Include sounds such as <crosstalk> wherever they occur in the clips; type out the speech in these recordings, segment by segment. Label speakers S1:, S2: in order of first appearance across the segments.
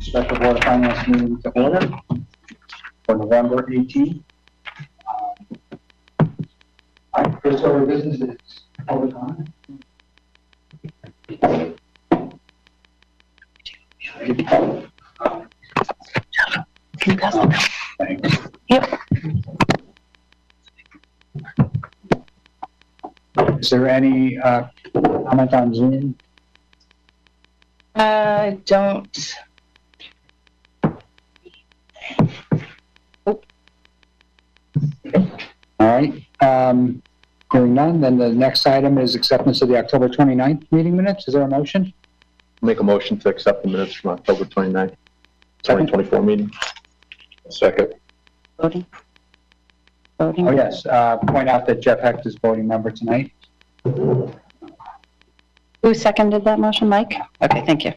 S1: special Board of Finance meeting to order for November 18. I, first order of business is public comment. Thanks. Is there any uh, comment on Zoom?
S2: Uh, don't.
S1: All right, um, hearing none, then the next item is acceptance of the October 29th meeting minutes. Is there a motion?
S3: Make a motion to accept the minutes from October 29th, 2024 meeting. Second.
S2: Voting. Voting.
S1: Oh, yes, uh, point out that Jeff Hecht is voting member tonight.
S2: Who seconded that motion, Mike? Okay, thank you.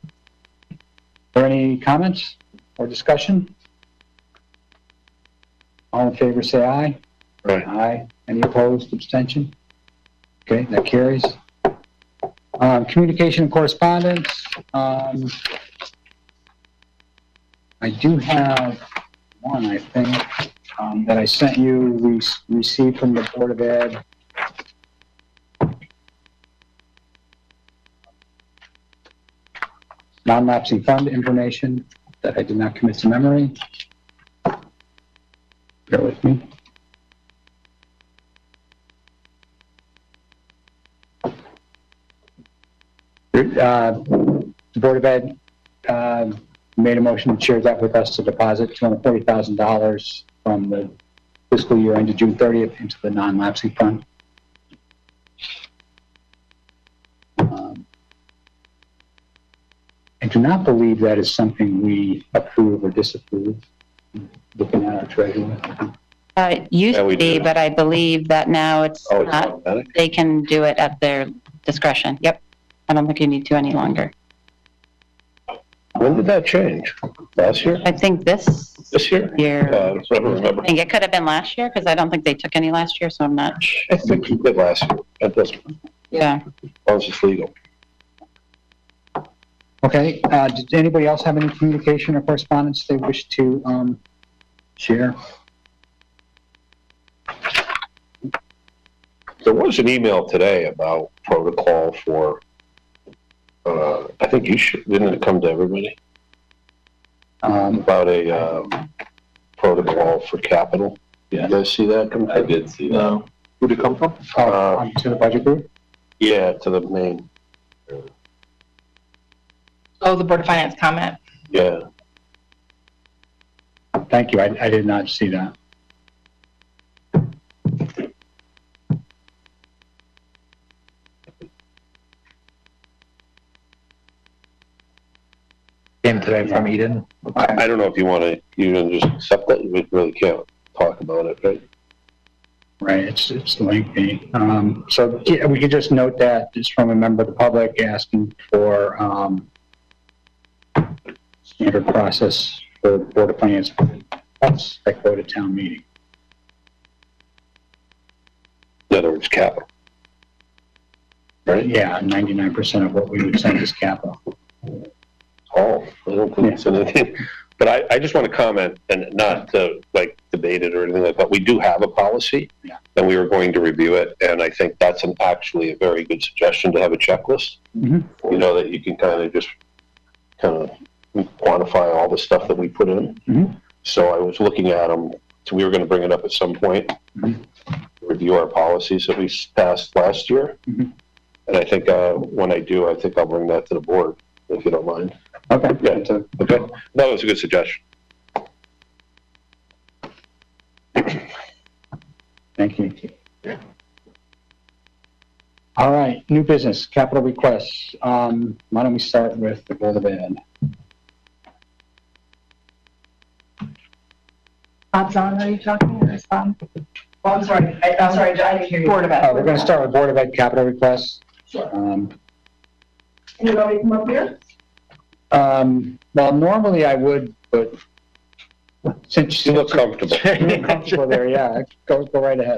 S1: Are there any comments or discussion? All in favor, say aye.
S3: Aye.
S1: Aye. Any opposed, abstention? Okay, that carries. Um, Communication and correspondence. um, I do have one, I think, um, that I sent you, we s- received from the Board of Ed. non-lapsing fund information that I did not commit to memory. Bear with me. Uh, The Board of Ed uh, made a motion and shared that with us to deposit $240,000 from the fiscal year ended June 30th into the non-lapsing fund. Um, I do not believe that is something we approve or disapprove, looking at our treasurer.
S2: Uh, it used
S3: Yeah, we
S2: to be,
S3: did.
S2: but I believe that now it's
S3: Oh, it's
S2: not,
S3: automatic?
S2: they can do it at their discretion. Yep. I don't think you need to any longer.
S3: When did that change? Last year?
S2: I think this
S3: This year?
S2: year,
S3: Uh, I don't
S2: I
S3: remember.
S2: think it could have been last year because I don't think they took any last year, so I'm not,
S3: I think you did last year. That doesn't,
S2: yeah.
S3: that was just legal.
S1: Okay, uh, did anybody else have any communication or correspondence they wish to, um, share?
S3: There was an email today about protocol for, uh, I think you should, didn't it come to everybody?
S1: Um,
S3: About a, um, protocol for capital. Did you guys see that come
S4: I
S3: through?
S4: did see that.
S3: No. Who'd it come from?
S1: oh, um, to the budget group?
S3: Yeah, to the main,
S5: Oh, the Board of Finance comment?
S3: yeah.
S1: Thank you, I, I did not see that.
S6: Came today from Eden.
S3: I don't know if you want to, you can just accept that, we really can't talk about it, right?
S1: Right, it's, it's lengthy. Um, so yeah, we could just note that it's from a member of the public asking for, um, standard process for Board of Finance. That's like go to town meeting.
S3: In other words, capital. Right?
S1: Yeah, ninety-nine percent of what we would send is capital.
S3: Oh, I don't think it's anything. But I, I just want to comment and not to like debate it or anything like that. We do have a policy.
S1: Yeah.
S3: And we were going to review it. And I think that's an, actually a very good suggestion to have a checklist.
S1: Mhm.
S3: You know, that you can kind of just kind of quantify all the stuff that we put in.
S1: Mhm.
S3: So I was looking at them. So we were going to bring it up at some point.
S1: Mhm.
S3: Review our policies that we s- passed last year.
S1: Mhm.
S3: And I think, uh, when I do, I think I'll bring that to the board, if you don't mind.
S1: Okay.
S3: Yeah. Okay, that was a good suggestion.
S1: Thank you. All right, new business, capital requests. Um, why don't we start with the Board of Ed?
S7: Uh,
S5: Bob's on, are you talking or is Bob?
S7: Oh, I'm sorry, I, I'm sorry, I didn't hear you.
S5: Board of
S1: Uh, we're
S5: Ed.
S1: gonna start with Board of Ed capital requests.
S7: Sure.
S1: Um,
S7: Can you want me to come up here?
S1: um, well, normally I would, but since
S3: You
S1: you
S3: look comfortable.
S1: <laughs> look comfortable there, yeah, go, go right ahead.